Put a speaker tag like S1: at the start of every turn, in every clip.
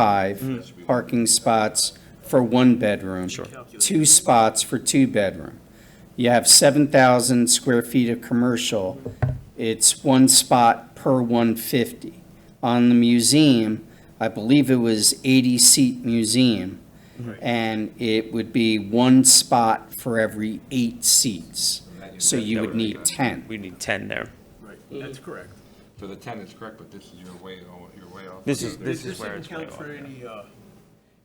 S1: five parking spots for one bedroom. Two spots for two bedroom. You have seven thousand square feet of commercial, it's one spot per one fifty. On the museum, I believe it was eighty seat museum, and it would be one spot for every eight seats. So you would need ten.
S2: We need 10 there.
S3: Right, that's correct.
S4: So the ten is correct, but this is your way, o- your way off.
S2: This is, this
S3: This
S2: is where
S3: doesn't
S2: it's way
S3: count
S2: off.
S3: for any, uh,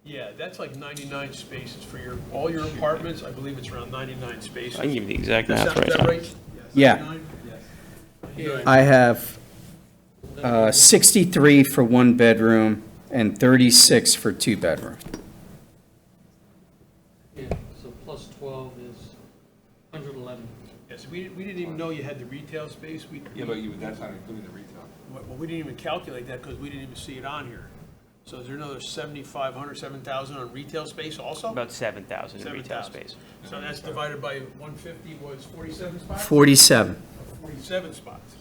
S3: yeah, that's like 99 spaces for your, all your apartments, I believe it's around 99 spaces.
S2: I can give you the exact
S3: Is that-
S2: math right
S3: Is that
S2: now.
S3: right?
S1: Yeah.
S3: 99?
S1: I have uh, 63 for one bedroom and 36 for two bedroom.
S5: Yeah, so plus 12 is 111.
S3: Yes, we, we didn't even know you had the retail space, we,
S4: Yeah, but you, that's not including the retail.
S3: well, we didn't even calculate that because we didn't even see it on here. So is there another 7,500, 7,000 on retail space also?
S2: About 7,000 in retail
S3: 7,000.
S2: space.
S3: So that's divided by 150 was 47 spots?
S1: 47.
S3: 47 spots.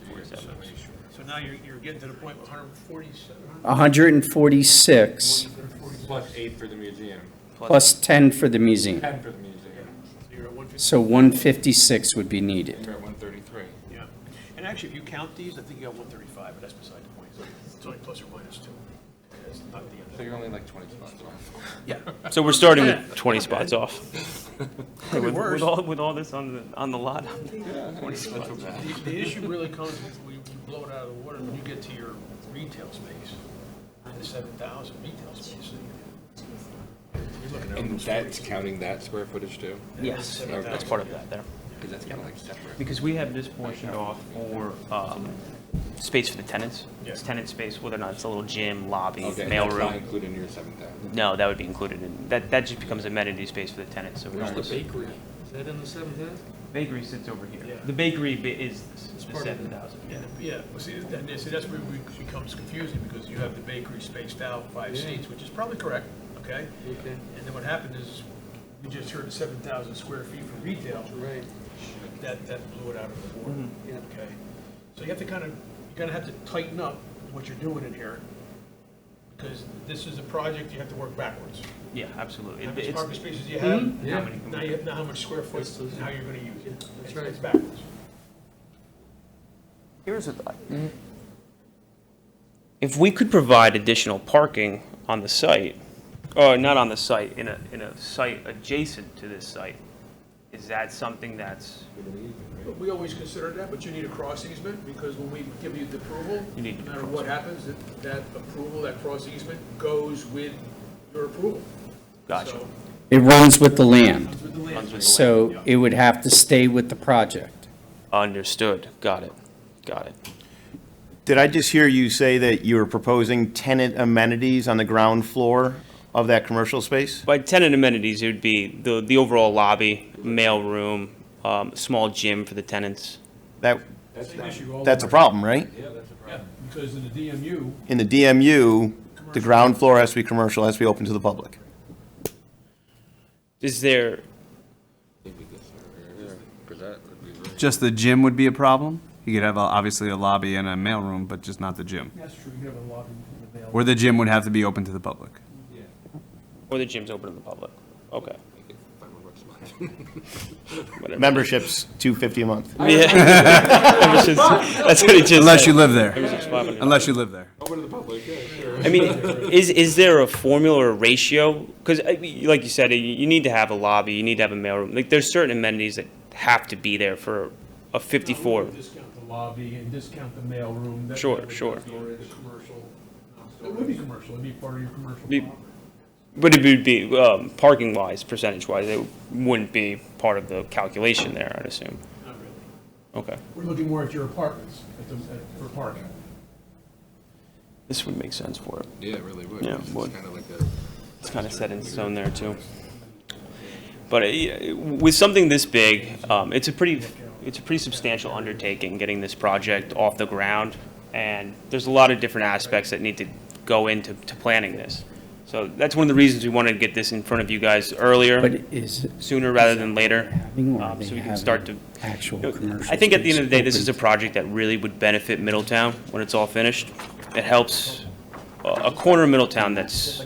S3: So now you're, you're getting to the point with 147,
S1: 146
S4: Plus eight for the museum,
S1: plus 10 for the museum.
S4: ten for the museum,
S3: so you're at 150,
S1: So 156 would be needed.
S4: and you're at one thirty-three.
S3: yeah. And actually, if you count these, I think you got 135, but that's beside the point. It's only plus or minus two. That's not the end of
S4: So you're only like twenty spots off.
S3: Yeah.
S2: So we're starting with 20 spots off.
S3: Could be
S2: With, with
S3: worse.
S2: all, with all this on the, on the lot,
S3: The, the issue really comes, if we we blow it out of the water when you get to your retail space, 97,000 retail space. You're looking at
S4: And
S3: almost
S4: that's counting that square footage too?
S2: yes, that's part of that there.
S4: Because that's kind of like separate.
S2: Because we have this portion off for, um, space for the tenants. It's
S3: Yeah.
S2: tenant space, whether or not it's a little gym, lobby,
S4: Okay, that's not
S2: mailroom.
S4: including your seven thousand.
S2: No, that would be included in, that, that just becomes amenity space for the tenants, so we're just looking.
S4: bakery?
S5: Is that in the 7,000?
S2: Bakery sits over here.
S3: Yeah.
S2: The bakery bi- is the
S5: part of it.
S2: 7,000.
S3: Yeah, yeah, well, see, that, see, that's where it becomes confusing, because you have the bakery spaced out five
S5: Yeah.
S3: seats, which is probably correct, okay?
S5: Okay,
S3: And then what happened is, we just heard seven thousand square feet for retail,
S5: right,
S3: that, that blew it out of the water,
S5: yeah.
S3: okay? So you have to kind of, you're gonna have to tighten up what you're doing in here, because this is a project, you have to work backwards.
S2: Yeah, absolutely.
S3: How
S2: It-
S3: many
S2: It's,
S3: parking spaces you have,
S5: Mm-hmm. Yeah.
S3: now you have, now how much square foot,
S5: That's those-
S3: and how you're gonna use it.
S5: Yeah, that's
S3: It's-
S5: right.
S3: It's backwards.
S2: Here's a thought. If we could provide additional parking on the site, or not on the site, in a, in a site adjacent to this site, is that something that's,
S3: But We always consider that, but you need a cross easement, because when we give you the approval, no
S2: You need to
S3: matter
S2: cross.
S3: what happens, that, that approval, that cross easement goes with your approval.
S2: Gotcha.
S3: So,
S1: It runs with the land,
S3: comes with the land.
S2: Runs with the
S1: so it would have to stay with the project.
S2: understood, got it, got it.
S6: Did I just hear you say that you were proposing tenant amenities on the ground floor of that commercial space?
S2: By tenant amenities, it would be the, the overall lobby, mailroom, um, small gym for the tenants.
S6: That,
S3: Same issue all
S6: that's a
S3: over.
S6: problem, right?
S3: Yeah, because in the DMU,
S6: In the DMU, the ground floor has to be commercial, has to be open to the public.
S2: Is there,
S4: Because that would be very.
S7: Just the gym would be a problem. You could have a, obviously a lobby and a mailroom, but just not the gym.
S3: that's true, you have a lobby available.
S7: Where the gym would have to be open to the public.
S2: or the gym's open to the public? Okay, whatever.
S6: Memberships, 250 a month.
S2: Yeah. Ever since- That's what it just said.
S7: Unless you live
S2: Ever
S7: there.
S2: since 500.
S7: Unless you live there.
S4: Open to the public, yeah, sure.
S2: I mean, is, is there a formula or ratio? Because, like you said, you, you need to have a lobby, you need to have a mailroom. Like, there's certain amenities that have to be there for a 54.
S3: Discount the lobby and discount the mailroom. that-
S2: Sure,
S3: that would
S2: sure.
S3: be in the commercial. It would be commercial, it'd be part of your commercial
S2: Be-
S3: property.
S2: But it would be, um, parking-wise, percentage-wise, it wouldn't be part of the calculation there, I'd assume.
S3: Not really.
S2: Okay.
S3: We're looking more at your apartments, at the, at- for parking.
S2: This would make sense for it.
S4: Yeah, it really would.
S2: Yeah,
S4: because
S2: would.
S4: It's kind of like a.
S2: It's kind of set in stone there, too. But uh, yeah, with something this big, um, it's a pretty, it's a pretty substantial undertaking, getting this project off the ground. And there's a lot of different aspects that need to go into, to planning this. So that's one of the reasons we wanted to get this in front of you guys
S1: But
S2: earlier,
S1: is,
S2: sooner rather than later.
S1: having or
S2: um,
S1: they
S2: So we can
S1: having
S2: start to,
S1: actual
S2: you know,
S1: commercial?
S2: I think at the end of the day,
S1: space
S2: this is a
S1: open?
S2: project that really would benefit Middletown when it's all finished. It helps a a corner of Middletown that's